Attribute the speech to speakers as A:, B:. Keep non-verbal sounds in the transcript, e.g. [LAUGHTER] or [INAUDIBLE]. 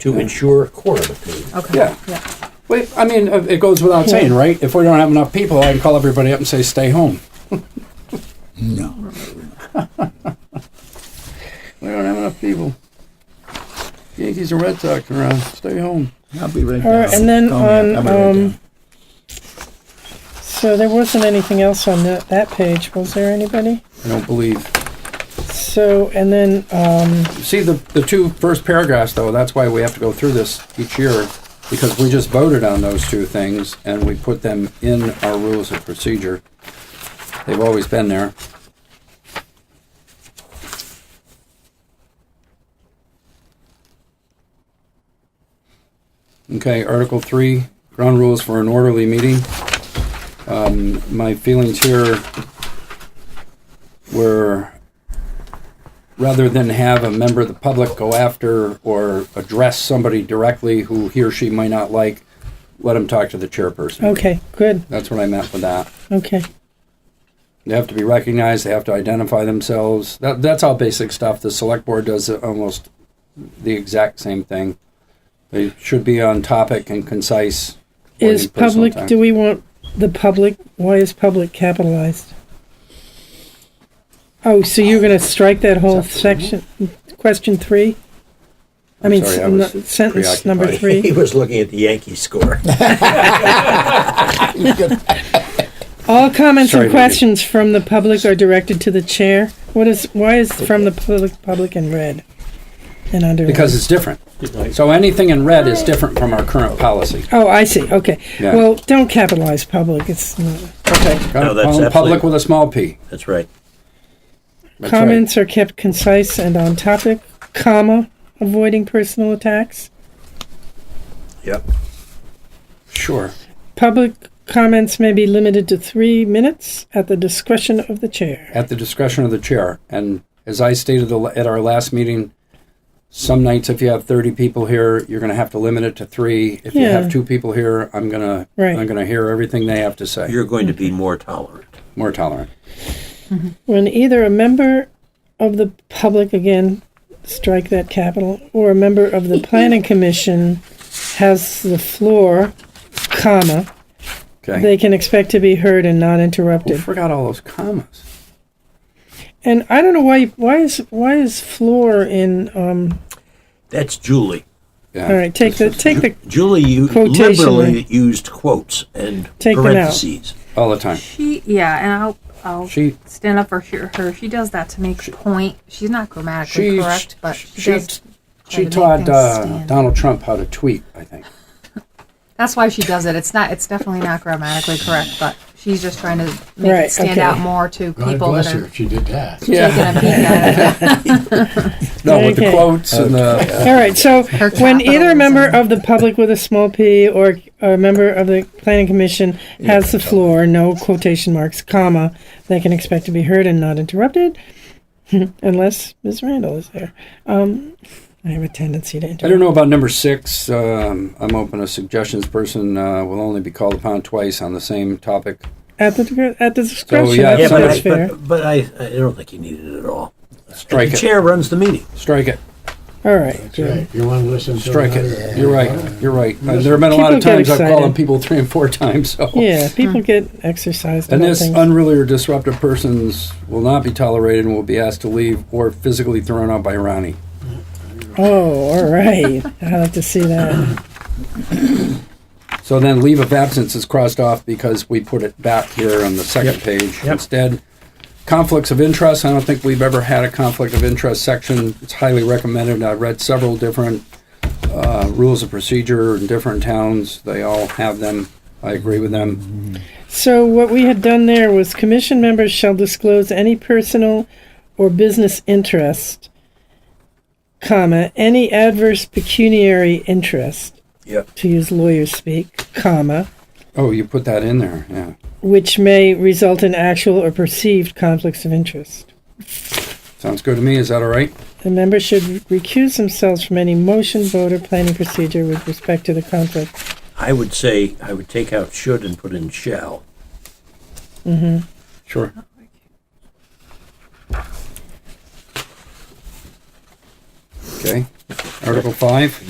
A: to ensure corridor paving.
B: Okay,
C: Yeah.
B: yeah,
C: Wait, I mean, uh, it goes without saying, right? If we don't have enough people, I can call everybody up and say, stay home.
D: No.
C: [LAUGHS] We don't have enough people. Yankees and Red Sox around, stay home.
D: I'll be right
E: All right,
D: down.
E: and then
D: Call me up.
E: on,
D: I'll be right
E: um,
D: down.
E: So there wasn't anything else on that, that page, was there anybody?
C: I don't believe.
E: So, and then, um,
C: See, the, the two first paragraphs, though, that's why we have to go through this each year, because we just voted on those two things, and we put them in our rules of procedure. They've always been there. Okay, Article Three, ground rules for an orderly meeting. Um, my feelings here were rather than have a member of the public go after or address somebody directly who he or she might not like, let him talk to the chairperson.
E: okay, good,
C: That's what I meant with that.
E: okay.
C: They have to be recognized. They have to identify themselves. That, that's all basic stuff. The select board does almost the exact same thing. They should be on topic and concise. or
E: Is
C: in personal
E: public,
C: time.
E: do we want the public, why is public capitalized? Oh, so you're gonna strike that whole section, question three? I
C: I'm
E: mean,
C: sorry, I
E: sen-
C: was
E: sentence number
C: preoccupied. [LAUGHS]
E: three.
A: He was looking at the
E: [LAUGHS]
A: Yankee score.
E: All comments
C: Sorry,
E: and
C: Mindy.
E: questions from the public are directed to the chair. What is, why is from the public, public in red? And under.
C: because it's different. So anything in red is different from our current policy.
E: Oh, I see. Okay.
C: Yeah.
E: Well, don't capitalize public. It's not. Okay.
C: Gotta
A: that's
C: call 'em public
A: absolutely-
C: with a small p.
A: That's right.
C: That's right.
E: Comments are kept concise and on topic, comma, avoiding personal attacks.
A: Yep.
C: Sure.
E: Public comments may be limited to three minutes at the discretion of the chair.
C: at the discretion of the chair. And as I stated the- at our last meeting, some nights if you have 30 people here, you're going to have to limit it to three. If you have
E: Yeah.
C: two people here, I'm going to
E: Right.
C: I'm going to hear everything they have to say.
A: You're going to be more tolerant.
C: More tolerant.
E: When either a member of the public, again, strike that capital, or a member of the planning commission has the floor, comma,
C: Okay.
E: they can expect to be heard and not
C: We
E: interrupted.
C: forgot all those commas.
E: And I don't know why why is why is floor in um
A: That's Julie.
C: Yeah.
E: all right, take the take the
A: Julie you
E: Quotation
A: liberally used quotes and
E: Take them out.
A: parentheses.
C: All the time.
B: she, yeah, and I'll, I'll
C: She
B: stand up for her, her. She does that to make point. She's not grammatically
C: she
B: correct, but she,
C: she,
B: does. try to
C: she
B: make
C: taught
B: things
C: uh,
B: stand.
C: Donald Trump how to tweet, I think.
B: That's why she does it. It's not. It's definitely not grammatically correct, but she's just trying to make
E: Right,
B: it stand
E: okay.
B: out more to
F: God
B: people that
F: bless her
B: are
F: if she did that.
B: taking a peek at it.
C: No, with the
E: Okay.
C: quotes and the
E: All right, so when either a member
B: capitalism.
E: of the public with a small p or a member of the planning commission has the floor, no quotation marks, comma, they can expect to be heard and not interrupted, [LAUGHS] unless Ms. Randall is there. Um, I have a tendency to
C: I
E: interrupt.
C: don't know about number six. Um, I'm open. A suggestions person uh, will only be called upon twice on the same topic.
E: At the digre- at the discretion.
C: Oh, yeah,
E: I
C: if
A: Yeah,
E: think
A: but,
C: somebody-
E: that's
A: I,
E: fair.
A: but, but I, I don't think you needed it at all.
C: Strike
A: the
C: it.
A: chair runs the meeting.
C: Strike it.
E: All right.
F: That's right. If you want to listen to
C: Strike
F: another-
C: it. You're right. You're right. Uh, there have been a lot of
E: People get
C: times I've called on
E: excited.
C: people three and four times. So.
E: Yeah, people get exercised.
C: And
E: about
C: this
E: things.
C: unruly or disruptive persons will not be tolerated and will be asked to leave or physically thrown out by Ronnie.
E: oh, all right. [LAUGHS] I like to see that.
C: So then leave of absence is crossed off because we put it back here on the second page. Instead, conflicts of interest, I don't think we've ever had a conflict of interest section. It's highly recommended. I read several different uh, rules of procedure in different towns. They all have them. I agree with them.
E: So what we had done there was commission members shall disclose any personal or business interest, comma, any adverse pecuniary interest,
A: Yep.
E: to use lawyers speak, comma,
C: Oh, you put that in there, yeah.
E: which may result in actual or perceived conflicts of interest.
C: Sounds good to me, is that all right?
E: The members should recuse themselves from any motion, vote, or planning procedure with respect to the conflict
A: I would say I would take out should and put in shall.
C: Sure. Okay, Article five.